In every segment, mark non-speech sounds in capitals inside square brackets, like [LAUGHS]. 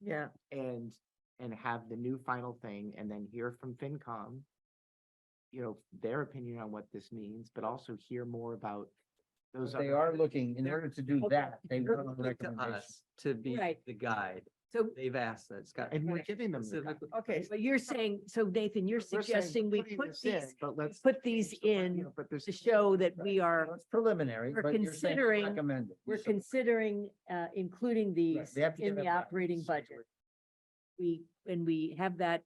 Yeah. and, and have the new final thing and then hear from FinCom. You know, their opinion on what this means, but also hear more about those. They other- are looking, in order to do Okay. that, they They're want a looking to recommendation. us to be Right. the guide. So, They've asked that, Scott. And we're Right. giving them. the guide. specifically- okay, but you're saying, so Nathan, you're We're saying, suggesting we putting put this in, these But let's. put these change the word, in you know, But there's. to show that we Well, are, It's preliminary, We're but you're saying considering- recommended. we're So- considering, uh, including right, these they have to in give the it back. operating So- budget. We, and we have that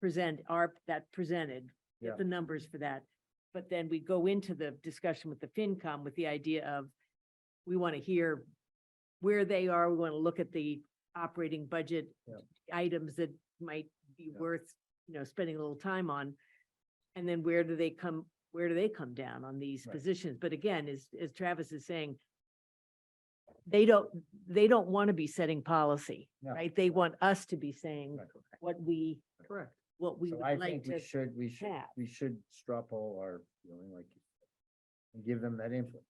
present, our, that presented, Yeah. the numbers for that. But then we go into the discussion with the FinCom with the idea of, we want to hear where they are, we want to look at the operating budget Yeah. items that might be Yeah. worth, you know, spending a little time on. And then where do they come, where do they come down on these Right. positions? But again, as, as Travis is saying, they don't, they don't want to be setting policy, No. right? They want us to be saying Right. what we, Correct. what we So I would think like we to. should, we should, have. we should straw poll our, feeling like. you said, And give them that input.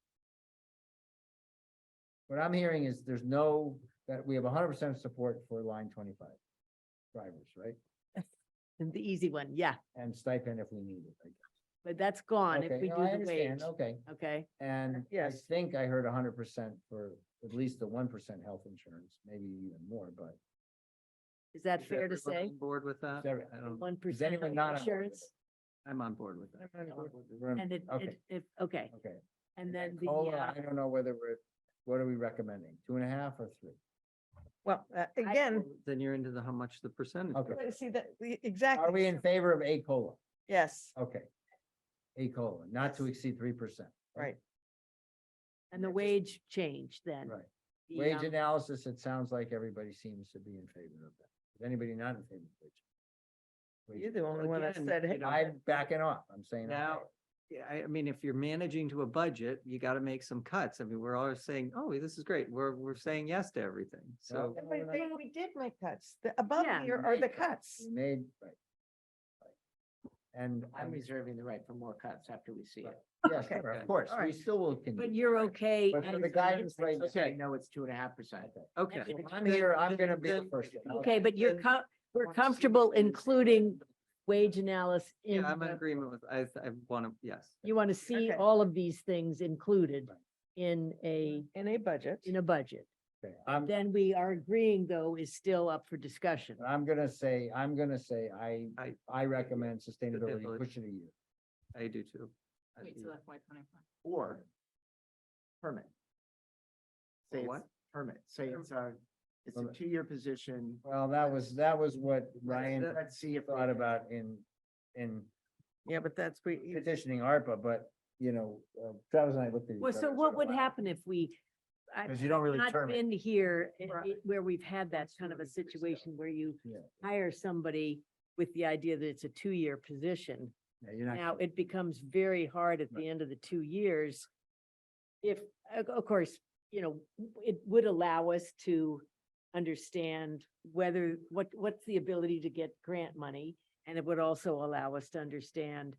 What I'm hearing is there's no, that we have hundred percent support for line twenty-five. Drivers, right? The easy one, yeah, And stipend if we need it. I guess. but that's gone if Okay, we no, do I the wage, understand, Okay, okay? and I Yes. think I heard hundred percent for at least the one percent health insurance, maybe even more, but. Is that Is fair to everyone say? on Board with that? every- I don't, One percent anyone not on board with insurance? I'm on board with that. We're- And it, Okay, it, if, okay, okay. and then the, Cola, uh, I don't know whether we're, what are we recommending? Two and a half or three? Well, uh, [LAUGHS] again, Then you're into the how much the percentage. [LAUGHS] Okay. let's see that, we- exactly. Are we in favor of A COLA? Yes, Okay. A COLA, not to Yes. exceed three percent. right. and the wage change then. Right. the, Wage um, analysis, it sounds like everybody seems to be in favor of that. Is anybody not in favor of wage? You're the only one that Again, said, you hey, know, I'm backing off. I'm saying. okay. Now, yeah, I, I mean, if you're managing to a budget, you gotta make some cuts. I mean, we're always saying, oh, this is great. We're, we're saying yes to everything. Well, So but we're they- not- we did make cuts. The above Yeah. here are the cuts. We Made, right. right. And, I'm um, reserving the right for more cuts after we see it. yes, Okay. sure, of course, All we right. still will. continue. But you're okay. But for as the it guidance is? right now, Okay, no, it's two and a half percent. Okay. Okay. I'm here, I'm gonna be the Then- first. one. Okay, but you're Then- co- we're comfortable including wage analysis in, Yeah, I'm in the- agreement with, I, I want to, yes. you want to see Okay. all of these things included Right. in a, In a budget. in a budget. Okay, I'm, Then we are agreeing though is still up for discussion. I'm gonna say, I'm gonna say, I, I- I recommend sustainability, Sustainability. push it a year. I do too. I do. Or permit. Or Say what? what? Permit, say it's a, it's a Permit. two-year position. Well, that was, that was what Ryan Let's see if. thought about in, in Yeah, but that's, we, petitioning ARPA, but, you know, uh, Travis and I looked at. each Well, other so and what said, would "Wow." happen if we, I, Cause you don't really not term it. been here i- Right. i- where we've had that kind of a Absolutely, for yourself. situation where you Yeah. hire somebody with the idea that it's a two-year position. Yeah, you're not- Now, it becomes very hard at Right. the end of the two years. If, of- of course, you know, it would allow us to understand whether, what, what's the ability to get grant money? And it would also allow us to understand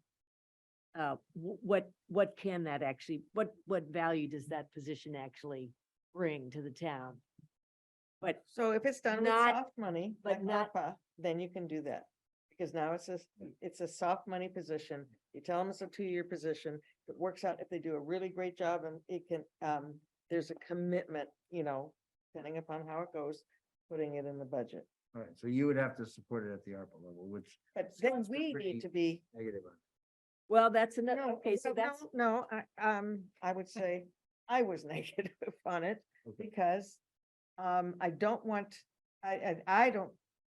uh, wh- what, what can that actually, what, what value does that position actually bring to the town? But so if it's done with Not- soft money, but like not- ARPA, then you can do that. Because now it's a, it's a soft money position. You tell them it's a two-year position. It works out if they do a really great job and it can, um, there's a commitment, you know, depending upon how it goes, putting it in the budget. All right, so you would have to support it at the ARPA level, which But So then it's we pretty- need to be negative. on- Well, that's another, No, okay, so no, that's, No, no, I, um, I [LAUGHS] would say I was [LAUGHS] negative on it Okay. because, um, I don't want, I, I, I don't,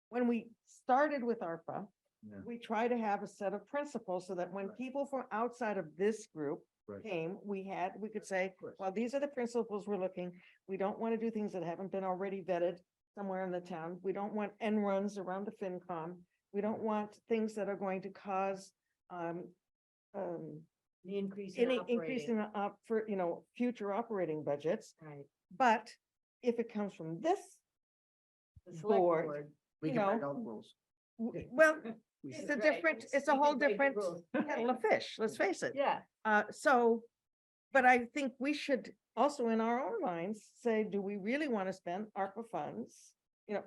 when we started with ARPA, Yeah. we try to have a set of principles so that when Right. people from outside of this group Right. came, we had, we could say, Of course. well, these are the principles we're looking. We don't want to do things that haven't been already vetted somewhere in the town. We don't want end runs around the FinCom. We don't want things that are going to cause, um, um, the increase in any increase in, operating. the op for, you know, future operating budgets. Right. But if it comes from this, The select board, board. We you can write know, all the rules. w- well, We it's said- Right. a different, it's a You whole can break the different rules. kettle [LAUGHS] of fish, let's face it. Yeah, Uh, so, but I think we should also in our own minds say, do we really want to spend ARPA funds? You know,